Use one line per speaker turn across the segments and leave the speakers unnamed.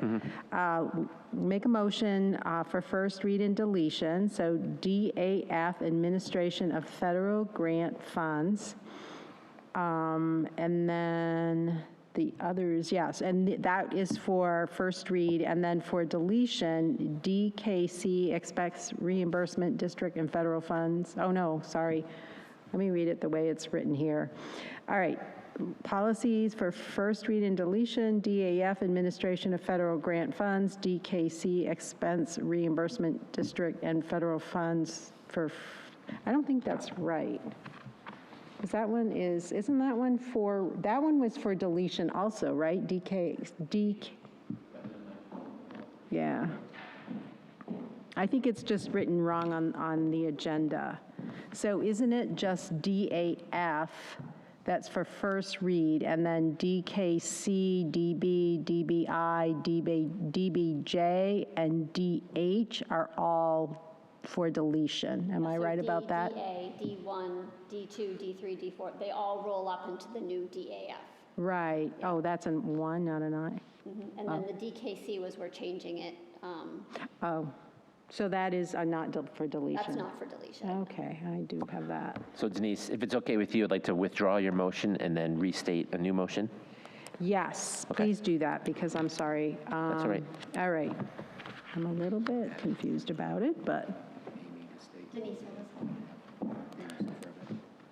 here. Uh, Make a motion uh, for first read and deletion, so DAF, Administration of Federal Grant Funds. Um, And then the others, yes, and th- that is for first read, and then for deletion, DKC expects reimbursement district and federal funds. Oh, no, sorry. Let me read it the way it's written here. All right, policies for first read and deletion, DAF, administration of federal grant funds, DKC expense reimbursement district and federal funds for, f- I don't think that's right. Because that one is, isn't that one for, that one was for deletion also, right? DK, DK. Yeah. I think it's just written wrong on, on the agenda. So isn't it just DAF that's for first read, and then DKC, DB, DBI, DB, DBJ, and DH are all for deletion? Am I
So
right
D,
about that?
DA, D1, D2, D3, D4, they all roll up into the new DAF.
Right, oh, that's a one, not an I.
Mhm. And then the DKC was, we're changing it. um,
Oh, so that is uh, not del- for deletion?
That's not for deletion.
Okay, I do have that.
So Denise, if it's okay with you, I'd like to withdraw your motion and then restate a new motion.
Yes,
Okay.
please do that, because I'm sorry.
That's all right.
Um, All right. I'm a little bit confused about it, but,
Denise, what was that?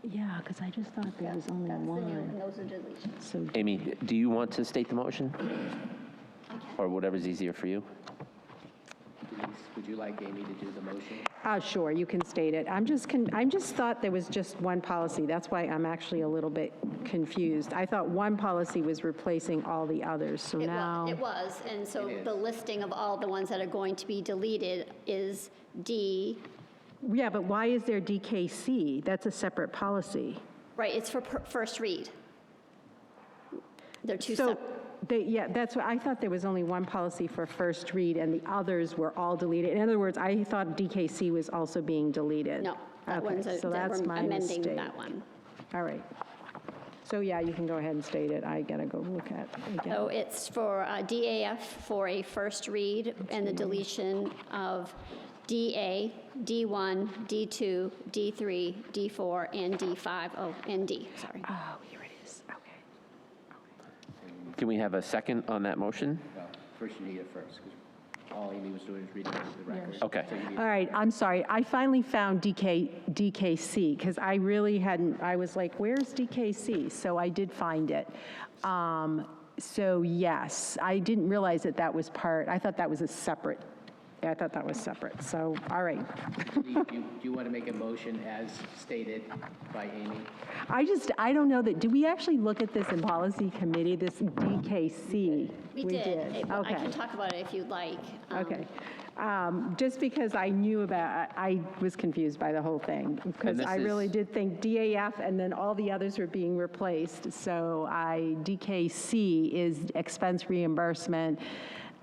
yeah, because I just thought there was only
That's the new,
one.
and those are deletions.
So,
Amy, do you want to state the motion? Or whatever's easier for you?
Would you like Amy to do the motion?
ah, sure, you can state it. I'm just, con- I'm just thought there was just one policy. That's why I'm actually a little bit confused. I thought one policy was replacing all the others, so
It
now.
was, it was, and so the listing of all the ones that are going to be deleted is D,
Yeah, but why is there DKC? That's a separate policy.
right, it's for per- first read. They're two
So,
separate.
they- yeah, that's what, I thought there was only one policy for first read, and the others were all deleted. In other words, I thought DKC was also being deleted.
No, that
Okay,
one's, a-
so
that
that's
we're
my
amending
mistake.
that one.
All right. So, yeah, you can go ahead and state it. I gotta go look at it again.
So it's for uh, DAF for a first read and the deletion of DA, D1, D2, D3, D4, and D5, oh, and D, sorry.
Oh, here it is, okay.
Can we have a second on that motion?
Well, first you need it first, because all Amy was doing was reading it into the record.
Okay.
So you need-
All right, I'm sorry. I finally found DK, DKC, because I really hadn't, I was like, where's DKC? So I did find it. Um, So yes, I didn't realize that that was part, I thought that was a separate, I thought that was separate. So, all right.
Do you- do you want to make a motion as stated by Amy?
I just, I don't know that, did we actually look at this in policy committee, this DKC?
We did. It- I
Okay.
can talk about it if you'd like. Um,
Okay. Um, Just because I knew about, I I was confused by the whole thing, because
this
I really
is-
did think DAF and then all the others were being replaced. So I, DKC is expense reimbursement,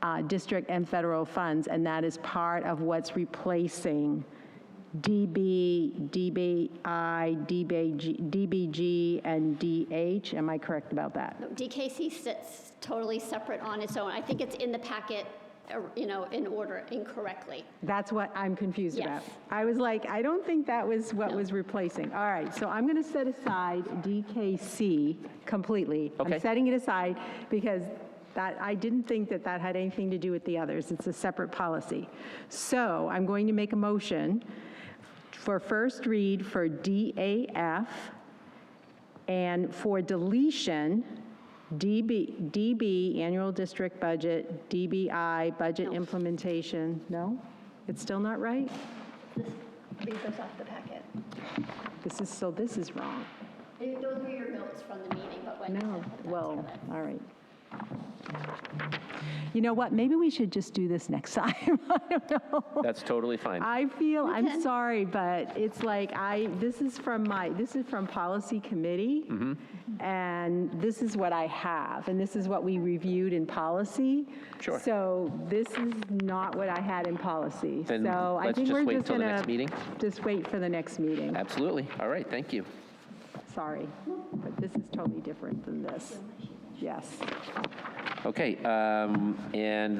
uh, district and federal funds, and that is part of what's replacing DB, DBI, DBG, DBG, and DH. Am I correct about that?
no, DKC sits totally separate on its own. I think it's in the packet, uh, you know, in order incorrectly.
That's what I'm confused about.
Yes.
I was like, I don't think that was what was replacing. All right, so I'm going to set aside DKC completely. I'm
Okay.
setting it aside because that, I didn't think that that had anything to do with the others. It's a separate policy. So I'm going to make a motion for first read for DAF and for deletion, DB, DB, annual district budget, DBI, budget implementation. No? It's still not right?
Read those off the packet.
This is, so this is wrong.
Those were your notes from the meeting, but when you
No,
said that,
well, all right. You know what, maybe we should just do this next time. I don't know.
That's totally fine.
I feel, I'm sorry, but it's like, I, this is from my, this is from policy committee,
Mm-hmm.
and this is what I have, and this is what we reviewed in policy.
Sure.
So this is not what I had in policy.
Then
So I
let's
think
just
we're
wait
just
till the
gonna
next meeting?
Just wait for the next meeting.
Absolutely. All right, thank you.
Sorry, but this is totally different than this. Yes.
Okay, um, and